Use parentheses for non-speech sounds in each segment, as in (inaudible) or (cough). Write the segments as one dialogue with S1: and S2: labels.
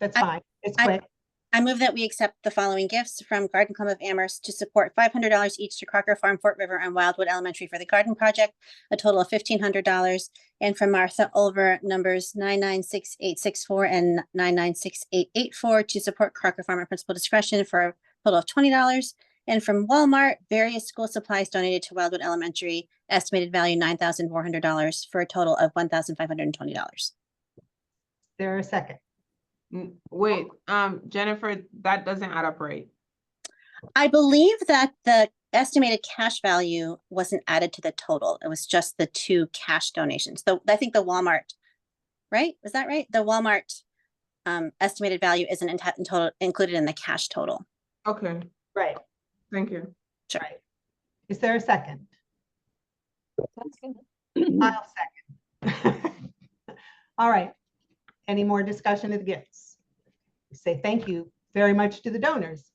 S1: That's
S2: I-
S1: fine. It's
S2: I-
S1: quick.
S2: I move that we accept the following gifts from Garden Club of Amherst to support five hundred dollars each to Crocker Farm, Fort River, and Wildwood Elementary for the garden project, a total of fifteen hundred dollars, and from Martha Olver, numbers nine nine six eight six four and nine nine six eight eight four to support Crocker Farm at principal discretion for a total of twenty dollars, and from Walmart, various school supplies donated to Wildwood Elementary, estimated value nine thousand four hundred dollars for a total of one thousand five hundred and twenty dollars.
S1: There a second.
S3: N- Wait, um, Jennifer, that doesn't add up right.
S2: I believe that the estimated cash value wasn't added to the total. It was just the two cash donations. The, I think the Walmart, right? Was that right? The Walmart um, estimated value isn't in in total, included in the cash total.
S3: Okay,
S1: Right,
S3: thank you.
S1: right. Is there a second? I'll second. (laughs) All right. Any more discussion of the gifts? Say thank you very much to the donors.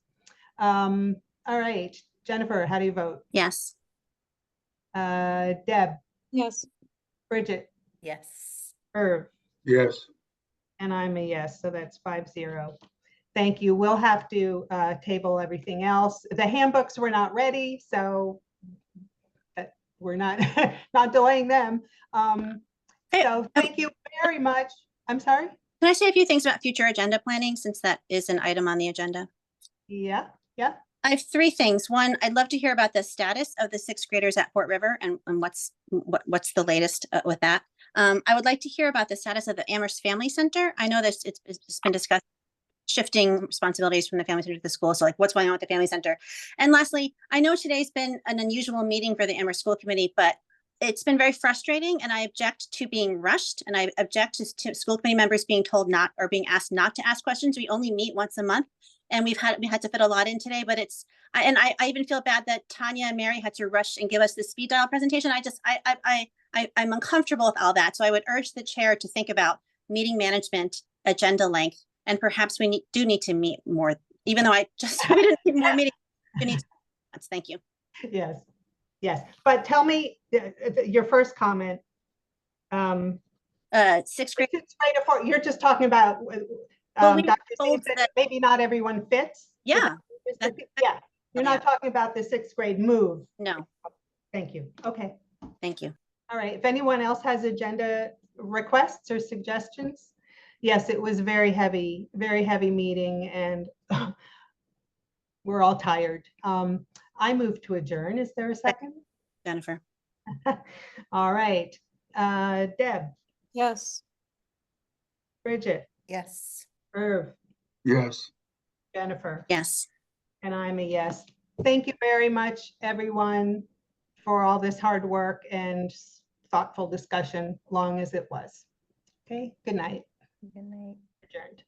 S1: Um, all right, Jennifer, how do you vote?
S2: Yes.
S1: Uh, Deb,
S4: Yes.
S1: Bridget,
S5: Yes.
S1: Irv,
S6: yes.
S1: and I'm a yes, so that's five zero. Thank you. We'll have to, uh, table everything else. The handbooks were not ready, so but we're not, (laughs) not delaying them. Um,
S2: Hey, uh,
S1: so thank you very much. I'm sorry?
S2: Can I say a few things about future agenda planning since that is an item on the agenda?
S1: Yeah, yeah.
S2: I have three things. One, I'd love to hear about the status of the sixth graders at Fort River and, and what's, what, what's the latest uh, with that. Um, I would like to hear about the status of the Amherst Family Center. I know this, it's, it's been discussed shifting responsibilities from the family center to the school. So like what's going on with the family center? And lastly, I know today's been an unusual meeting for the Amherst School Committee, but it's been very frustrating and I object to being rushed and I object to, to school committee members being told not, or being asked not to ask questions. We only meet once a month. And we've had, we had to fit a lot in today, but it's I, and I, I even feel bad that Tanya and Mary had to rush and give us the speed dial presentation. I just, I, I, I, I, I'm uncomfortable with all that. So I would urge the chair to think about meeting management, agenda length, and perhaps we need, do need to meet more, even though I just, (laughs) we didn't need more meetings. We need, to- thank you.
S1: Yes, yes. But tell me uh, uh, your first comment. Um,
S2: Uh, sixth grade,
S1: it's right before- You're just talking about uh,
S2: Well, we
S1: um, Dr.
S2: told
S1: Seuss said
S2: that-
S1: maybe not everyone fits. Is
S2: yeah,
S1: that-
S2: that-
S1: Yeah, you're not talking about the sixth grade move.
S2: no,
S1: Thank you. Okay.
S2: thank you.
S1: All right. If anyone else has agenda requests or suggestions? Yes, it was very heavy, very heavy meeting and (laughs) we're all tired. Um, I move to adjourn. Is there a second?
S2: Jennifer,
S1: All right. Uh, Deb,
S4: Yes.
S1: Bridget,
S5: Yes.
S1: Irv,
S6: Yes.
S1: Jennifer.
S2: yes.
S1: And I'm a yes. Thank you very much, everyone, for all this hard work and thoughtful discussion, long as it was. Okay, good night,
S5: Good night.
S1: adjourned.